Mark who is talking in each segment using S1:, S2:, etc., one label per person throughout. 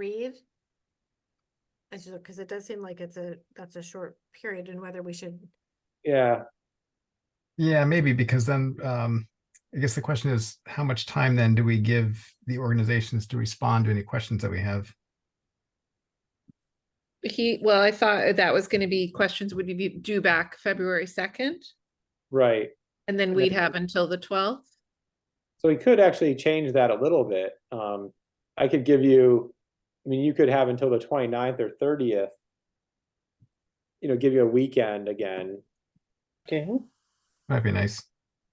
S1: read. As you, because it does seem like it's a, that's a short period and whether we should,
S2: Yeah,
S3: Yeah, maybe because then um, I guess the question is, how much time then do we give the organizations to respond to any questions that we have?
S4: He, well, I thought that was gonna be questions would be due back February second,
S2: right.
S4: and then
S2: Yeah.
S4: we'd have until the twelfth.
S2: So we could actually change that a little bit. Um, I could give you, I mean, you could have until the 29th or thirtieth. You know, give you a weekend again.
S5: Okay,
S3: That'd be nice.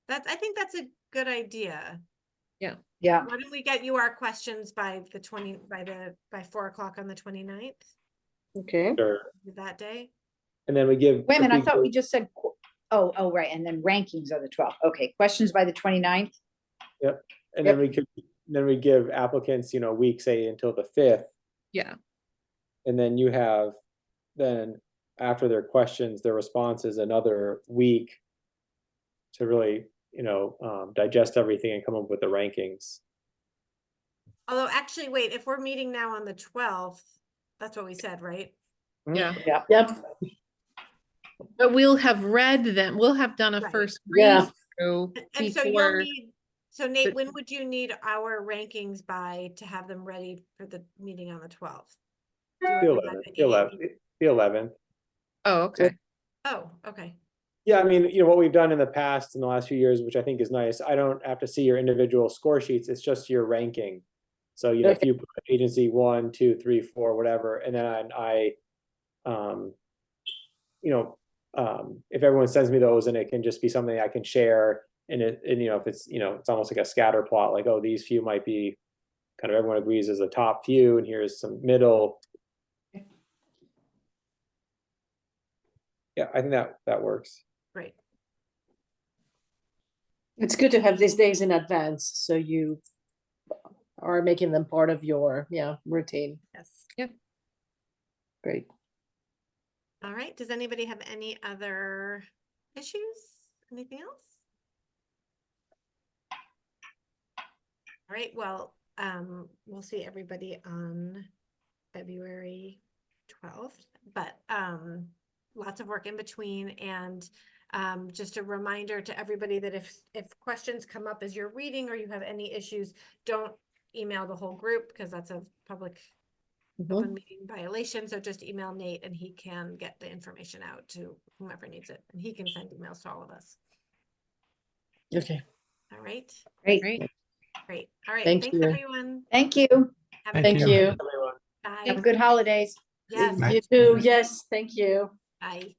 S1: that's, I think that's a good idea.
S5: yeah,
S1: Why don't we get you our questions by the twenty, by the, by four o'clock on the 29th?
S5: okay.
S2: Or,
S1: that day?
S2: and then we give.
S6: Wait a
S2: if
S6: minute, I thought
S2: go-
S6: we just said, qu- oh, oh, right, and then rankings are the twelfth. Okay, questions by the 29th.
S2: And then we could, then we give applicants, you know, a week, say until the fifth.
S4: Yeah.
S2: And then you have, then after their questions, their responses, another week. To really, you know, um, digest everything and come up with the rankings.
S1: Although actually, wait, if we're meeting now on the twelfth, that's what we said, right?
S4: Yeah,
S5: Yeah.
S6: Yep.
S4: but we'll have read them, we'll have done a
S1: Right.
S4: first
S5: Yeah.
S4: read through
S1: And- And so you'll
S4: before.
S1: need, so Nate, when would you need our rankings by to have them ready for the meeting on the twelfth?
S2: The eleventh, the eleventh, the eleventh.
S4: Oh, okay,
S1: Oh, okay.
S2: Yeah, I mean, you know, what we've done in the past in the last few years, which I think is nice, I don't have to see your individual score sheets, it's just your ranking. So, you know, if
S5: Okay.
S2: you put agency one, two, three, four, whatever, and then I, um, you know, um, if everyone sends me those and it can just be something I can share and it, and you know, if it's, you know, it's almost like a scatter plot, like, oh, these few might be kind of everyone agrees is the top few and here's some middle. Yeah, I think that, that works.
S1: Great.
S5: It's good to have these days in advance, so you are making them part of your, yeah, routine.
S1: Yes.
S5: Great.
S1: All right. Does anybody have any other issues? Anything else? All right. Well, um, we'll see everybody on February twelfth, but, um, lots of work in between and, um, just a reminder to everybody that if, if questions come up as you're reading or you have any issues, don't email the whole group because that's a public
S5: Mhm.
S1: open meeting violation, so just email Nate and he can get the information out to whomever needs it, and he can send emails to all of us.
S5: Okay,
S1: All right,
S6: Great,
S4: great,
S1: great, all right,
S5: Thank
S1: thanks
S5: you.
S1: everyone.
S6: thank you.
S1: Have a
S3: Thank
S5: thank
S1: good
S3: you.
S5: you.
S2: Everyone.
S1: Bye,
S6: Have good holidays.
S1: yes,
S3: Bye.
S5: You too, yes, thank you.
S1: bye.